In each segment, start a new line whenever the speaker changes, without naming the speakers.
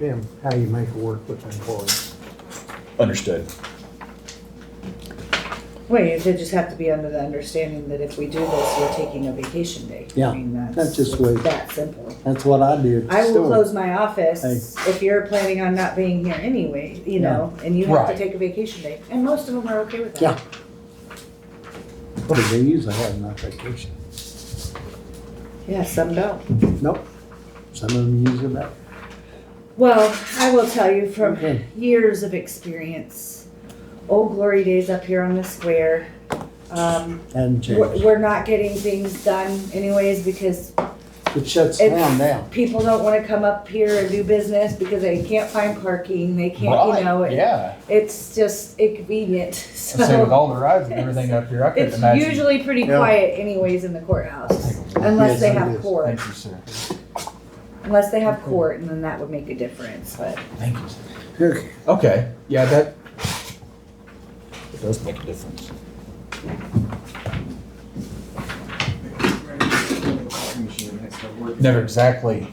them, how you make it work with the employees.
Understood.
Well, you did just have to be under the understanding that if we do this, we're taking a vacation day. I
Yeah,
mean,
that's just the way-
That simple.
That's what I did.
I will
Still,
close my office if you're planning on not being here anyway, you know, and you have to
Right.
take a vacation day. And most of them are okay with that.
Yeah. What do they usually have in that vacation?
Yeah, some don't.
Nope. Some of them use it up.
Well, I will tell you from
Okay.
years of experience, old glory days up here on the square. Um,
Hadn't
we're,
changed.
we're not getting things done anyways because
It shuts
It-
down now.
people don't want to come up here and do business because they can't find parking. They can't, you know,
Right,
it,
yeah.
it's just inconvenient.
I say with
So
all the rides and everything up here, I couldn't
it's
imagine.
usually pretty
Yeah.
quiet anyways in the courthouse,
Yes,
unless they
it
have
is.
court.
Thank you, sir.
Unless they have court, and then that would make a difference. But
Thank you, sir.
Okay.
Okay, yeah, that,
It does make a difference.
never exactly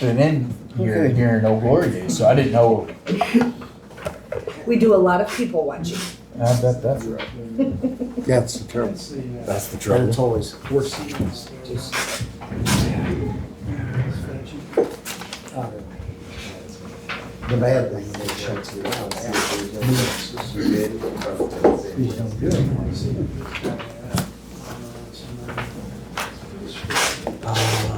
been in here,
Okay.
here in Old Glory days, so I didn't know.
we do a lot of people watching.
I bet that's right.
That's the trouble.
That's the
But it's
trouble.
always worse. than it's just- Uh, The bad thing, is it shuts you down. Please don't do it. Uh,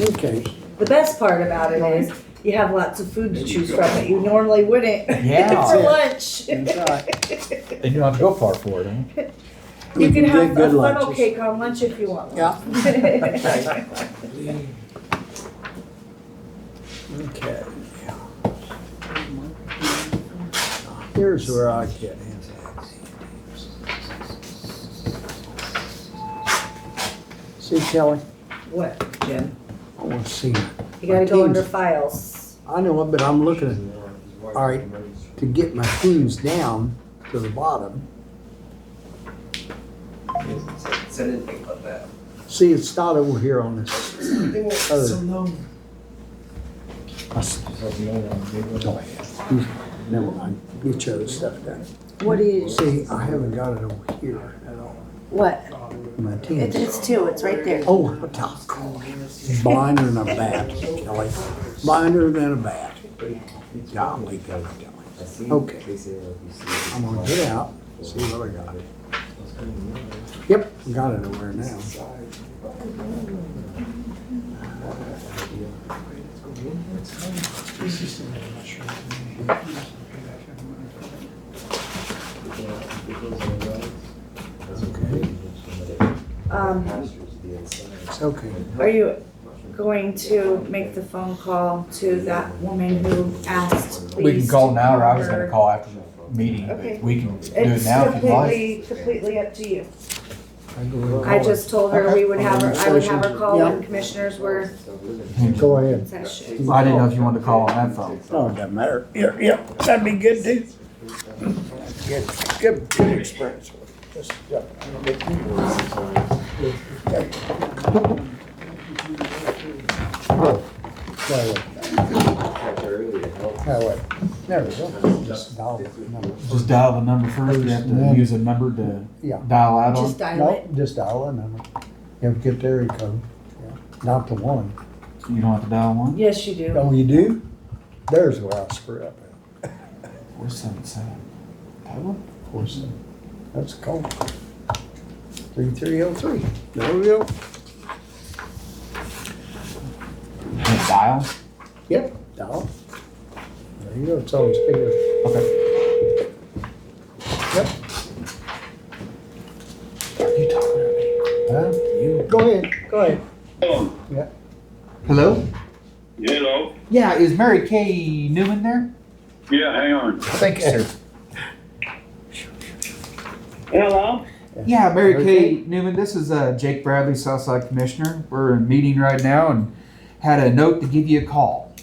Okay.
The best part about it is you have lots of food to choose from that you normally wouldn't
Yeah.
for lunch.
That's right.
They knew how to go far for it, huh?
You can
get
have a
good
funnel
lunches.
cake on lunch if you want. one.
Okay. Here's where I get in. See Kelly,
What, Jim?
I want to see you.
You gotta
My
go under
team's-
files.
I know it, but I'm looking at, all right, to get my teams down to the bottom.
Said anything about that.
See, it's not over here on this. other- I s- Never mind, get your other stuff done.
What do you?
See, I haven't got it over here at all,
What?
my teams.
it's two, it's right there.
Oh, what the crap. blinder than a bat, Kelly. Blinder than a bat. Golly, golly, golly. Okay. I'm gonna get out, see what I got. Yep, got it over now. Okay,
Um,
it's okay.
are you going to make the phone call to that woman who asked, please?
We can call now, or I was gonna
to
call after the meeting,
Okay.
but we can do it
It's
now if you'd like.
completely, completely up to you.
I go ahead and
I
call
just told her we would have her, I would have her call when
Yeah.
commissioners were
it. Go ahead. Oh.
session.
I didn't know if you wanted to call on that phone.
No, it doesn't matter. Yeah, yeah, that'd be good too. Good, good, good experience. Just, yeah. Oh, That way, that way. There we go. Just dial it. No,
Just dial the number first, you have to use a number to
Yeah.
dial out on.
Just dial it.
No, just dial a number. You have to get the area code. Yeah. Not the one.
You don't have to dial one?
Yes, you do.
Oh, you do? There's where I screw up.
Four seven seven. That one?
Of course, that's a call. Three three oh three. There we go.
And dial?
Yep, dial. There you go, it's on speaker.
Okay.
Yep.
You talking to me?
Huh? Go ahead, go ahead.
Oh,
Yeah.
Hello?
hello.
Yeah, is Mary Kay Newman there?
Yeah, hang on.
Thank you, sir.
Hello?
Yeah, Mary
Mary
Kay Newman, this is uh, Jake Bradley, Southside Commissioner. We're in a meeting right now and had a note to give you a call.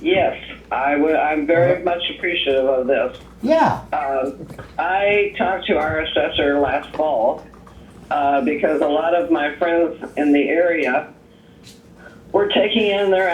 Yes, I would, I'm very much appreciative of this.
Yeah.
Uh, I talked to our assessor last fall, uh, because a lot of my friends in the area were taking in their